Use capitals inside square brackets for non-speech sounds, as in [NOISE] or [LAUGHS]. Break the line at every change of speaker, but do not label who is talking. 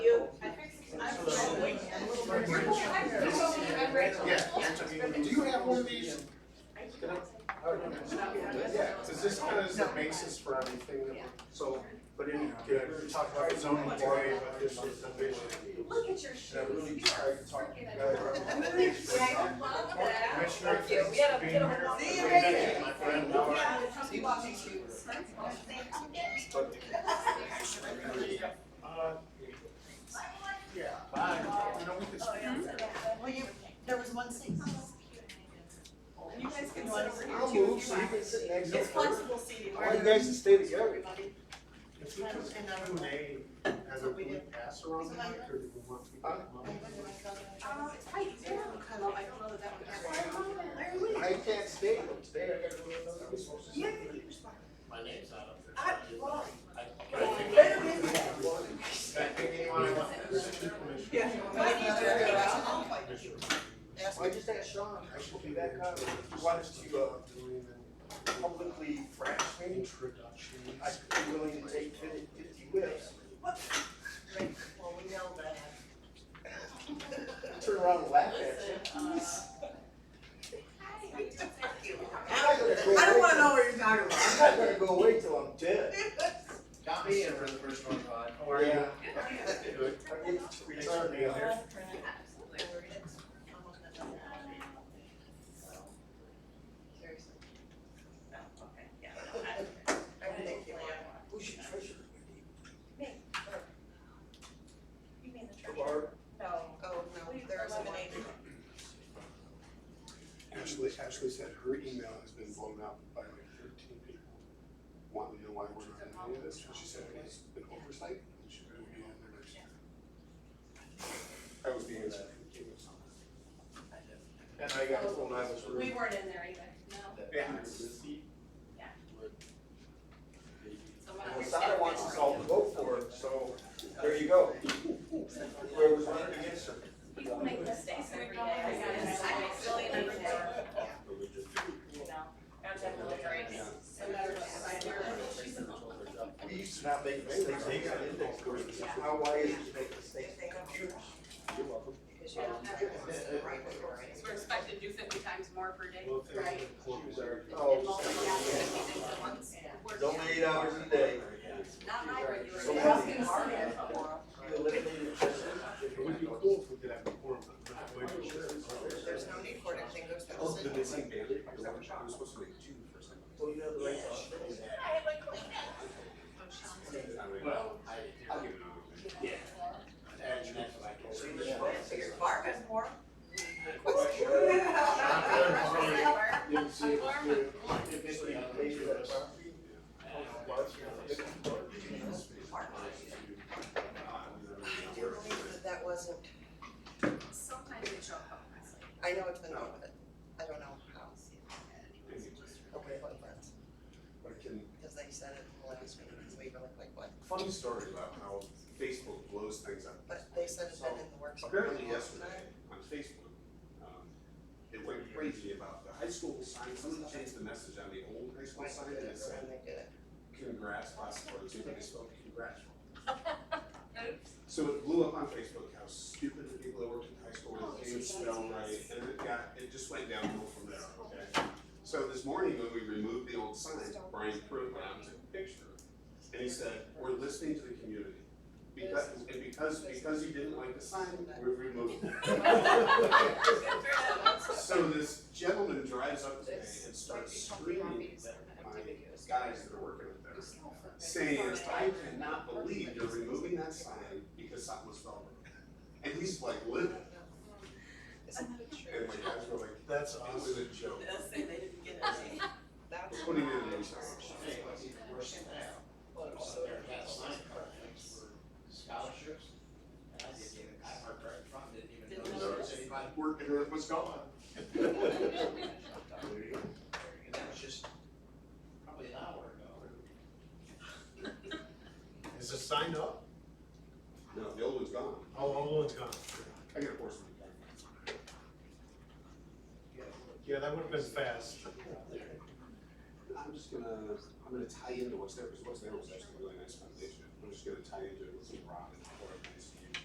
good, we were talking about the zoning today, about this subdivision.
Look at your shoes.
And I really
You
tried
are
to talk
freaking
better.
[LAUGHS] adorable. Yeah, I love that.
Commissioner,
Thank you.
thanks
We had a-
for being
had a
here.
wonderful-
See you
Thank
later.
My friend,
Yeah,
Laura.
come to watch you. Thank you.
But- Uh, Yeah, bye. You know, we could
Oh, yeah.
speak.
Well, you, there was one seat.
You guys can sit over here
I'll
too
move
if you
so you
want.
can sit next to
It's
her.
flexible seating.
I want you guys to stay together.
Everybody.
If we just can have a name as a big pass around the mic, or do we want people to come up?
Um, it's probably easier to kind of, I don't know that that would happen.
I can't stay, but today I gotta go to another resource.
Yeah, you're smart.
My name's not up there.
I, well,
I-
yeah.
Why do you do it? Ask
Why just ask Sean, I should be that guy, who wants to, uh, publicly thrash me,
Introduction.
I could be willing to take fifty whips,
Right, well, we know that.
turn around and laugh at you. I'm not gonna go
I don't wanna
away
know what you're talking about.
till- I'm not gonna go away till I'm dead.
Got me in for the first one, Todd. How are you?
Yeah,
Good.
I get to retire now.
Seriously. I would think you are.
Who's your treasurer, Wendy?
You mean the
The
church?
bar,
No.
Oh, no, there isn't an eight.
Ashley, Ashley said her email has been blown up by like thirteen people. Want to know why we're not in any of this, and she said it's an oversight, and she will be on there next year. That was the answer.
and I got full nine of
We weren't in there either, no. So when I was-
Masada wants us all to vote for it, so there you go. Whoever's running against her.
People make mistakes every day, I guess. I make silly mistakes. You know, I'm definitely right. So matter what, I do. She's a mom.
We used to not make mistakes, they got index cards. How, why is it you make mistakes?
If they don't,
Computers. You're welcome.
because you don't have it, it's the right way for it.
So we're expected to do fifty times more per day.
Right.
And
Oh,
multiple times, fifty things at once.
it's only eight hours a day.
Not my regular.
So
day.
how
do
You
you-
eliminated treasurer.
It would be cool if we could have a forum, but I'm not quite sure.
There's no need for it, everything goes to the
Oh, the
city.
missing Bailey? Is that what you were supposed to make two for some
Well, you know the right to say that.
[LAUGHS]
Well, I, I'll give it a Yeah. And that's what I
So you
can
just
say.
vote.
So your bar is more.
Didn't see it.
If it's the invasion of the property,
I do believe that that wasn't,
Sometimes they show up.
I know it's been on with it, I don't know how, okay, what friends,
But I can,
because they said it in the last meeting, because we were like, like, what?
Funny story about how Facebook blows things up.
But they said it's been in the works.
Apparently yesterday on Facebook, um, it went crazy about the high school sign, someone changed the message on the old high school
Why
sign
did
and
it,
it said,
when they did it?
congrats, class of forty-two, and they spelled congrats. So it blew up on Facebook how stupid the people that worked in high school were, they didn't spell right, and it got, it just went downhill from there, okay? So this morning when we removed the old sign, Brian Pruitt went out and took a picture, and he said, we're listening to the community. Because, and because, because you didn't like the sign, we removed it. So this gentleman drives up to me and starts screaming at my guys that are working up there saying, I cannot believe you're removing that [LAUGHS] sign because something was wrong. And he's like,
I
what?
don't know. Isn't that
And my
true?
guys were like,
that's
it was
awesome.
a joke.
They'll say they didn't [LAUGHS] get it. That's.
What do you mean, it's not
Well, it's so-
Scholarships. And I didn't even, I parked right in front, didn't even
Didn't
notice there was anybody.
Working her was gone.
And that was just probably an hour ago.
Is the sign up?
No, the old one's gone.
Oh, oh, it's gone.
I got a horse in the
Yeah, that would have been fast.
I'm just gonna, I'm gonna tie into what's there, because what's there was actually a really nice foundation. I'm just gonna tie into it with some rock and pour it